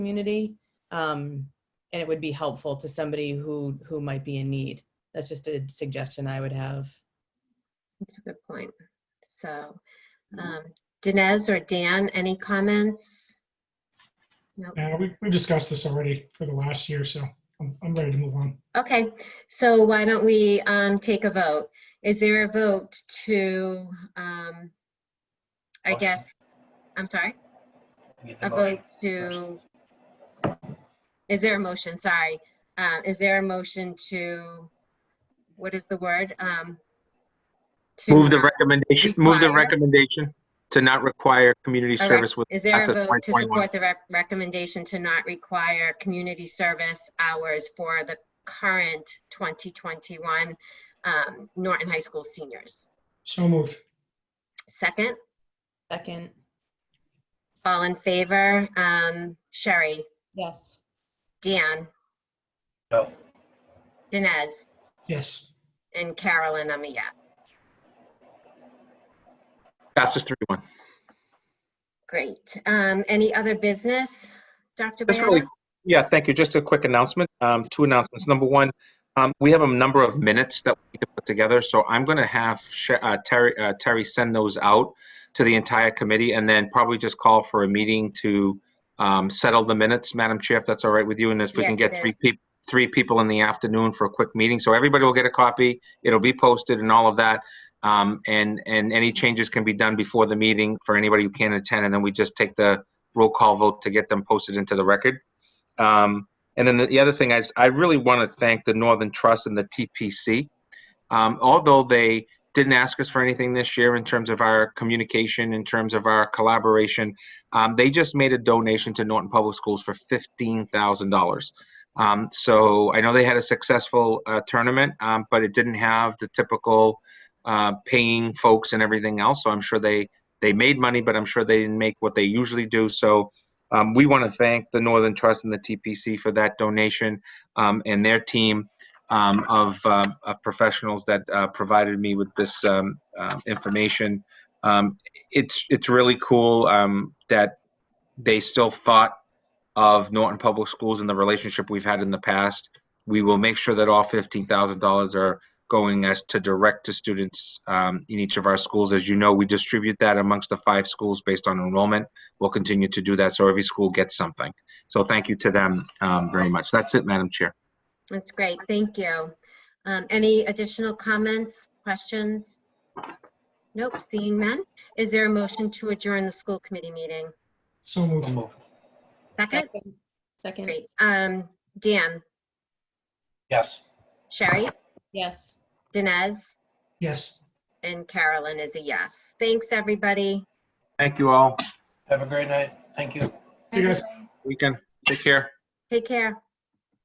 community. Um, and it would be helpful to somebody who, who might be in need. That's just a suggestion I would have. That's a good point. So, um, Dinesh or Dan, any comments? Nope. Yeah, we, Uh, we've discussed this already for the last year, so I'm, I'm ready to move on. Okay, so why don't we um, take a vote? Is there a vote to, um, I Motion. guess, I'm sorry, Get the a motion. vote to, is there a motion, sorry? Uh, Is there a motion to, what is the word? Um, to Move the not- recommendation, move the require- recommendation to not require community All right. service with. Is there a asset vote to 2021. support the rec- recommendation to not require community service hours for the current 2021 um, Norton High School seniors? So moved. Second, Second, all in favor? Um, Sherry, yes. Dan, No, Dinesh, Yes. and Carolyn, I'm a yes. Passes three one. Great. Um, Any other business, Dr. Just really- Boyana? Yeah, thank you. Just a quick announcement, um, two announcements. Number one, um, we have a number of minutes that we can put together, so I'm going to have Sha- uh, Terry, uh, Terry send those out to the entire committee and then probably just call for a meeting to, um, settle the minutes, Madam Chair, if that's all right with you, and if we can Yes, get it three is. people, three people in the afternoon for a quick meeting, so everybody will get a copy, it'll be posted and all of that. Um, and, and any changes can be done before the meeting for anybody who can't attend, and then we just take the roll call vote to get them posted into the record. Um, and then the, the other thing is, I really want to thank the Northern Trust and the TPC. Um, although they didn't ask us for anything this year in terms of our communication, in terms of our collaboration, um, they just made a donation to Norton Public Schools for fifteen thousand dollars. Um, so I know they had a successful uh, tournament, um, but it didn't have the typical uh, paying folks and everything else. So I'm sure they they made money, but I'm sure they didn't make what they usually do. So um, we want to thank the Northern Trust and the TPC for that donation um, and their team um, of, uh, of professionals that uh, provided me with this um, uh, information. Um, it's it's really cool um, that they still thought of Norton Public Schools and the relationship we've had in the past. We will make sure that all fifteen thousand dollars are going as to direct to students um, in each of our schools. As you know, we distribute that amongst the five schools based on enrollment we'll continue to do that so every school gets something. So thank you to them um, very much. That's it, Madam Chair. That's great, thank you. Um, Any additional comments, questions? Nope, seeing none. Is there a motion to adjourn the school committee meeting? So moved. so moved. Second? Second, Great. Um, Dan, Yes. Sherry, yes. Dinesh, Yes. and Carolyn is a yes. Thanks, everybody. Thank you all. Have a great night. Thank you. See you guys. Weekend. Take care. Take care.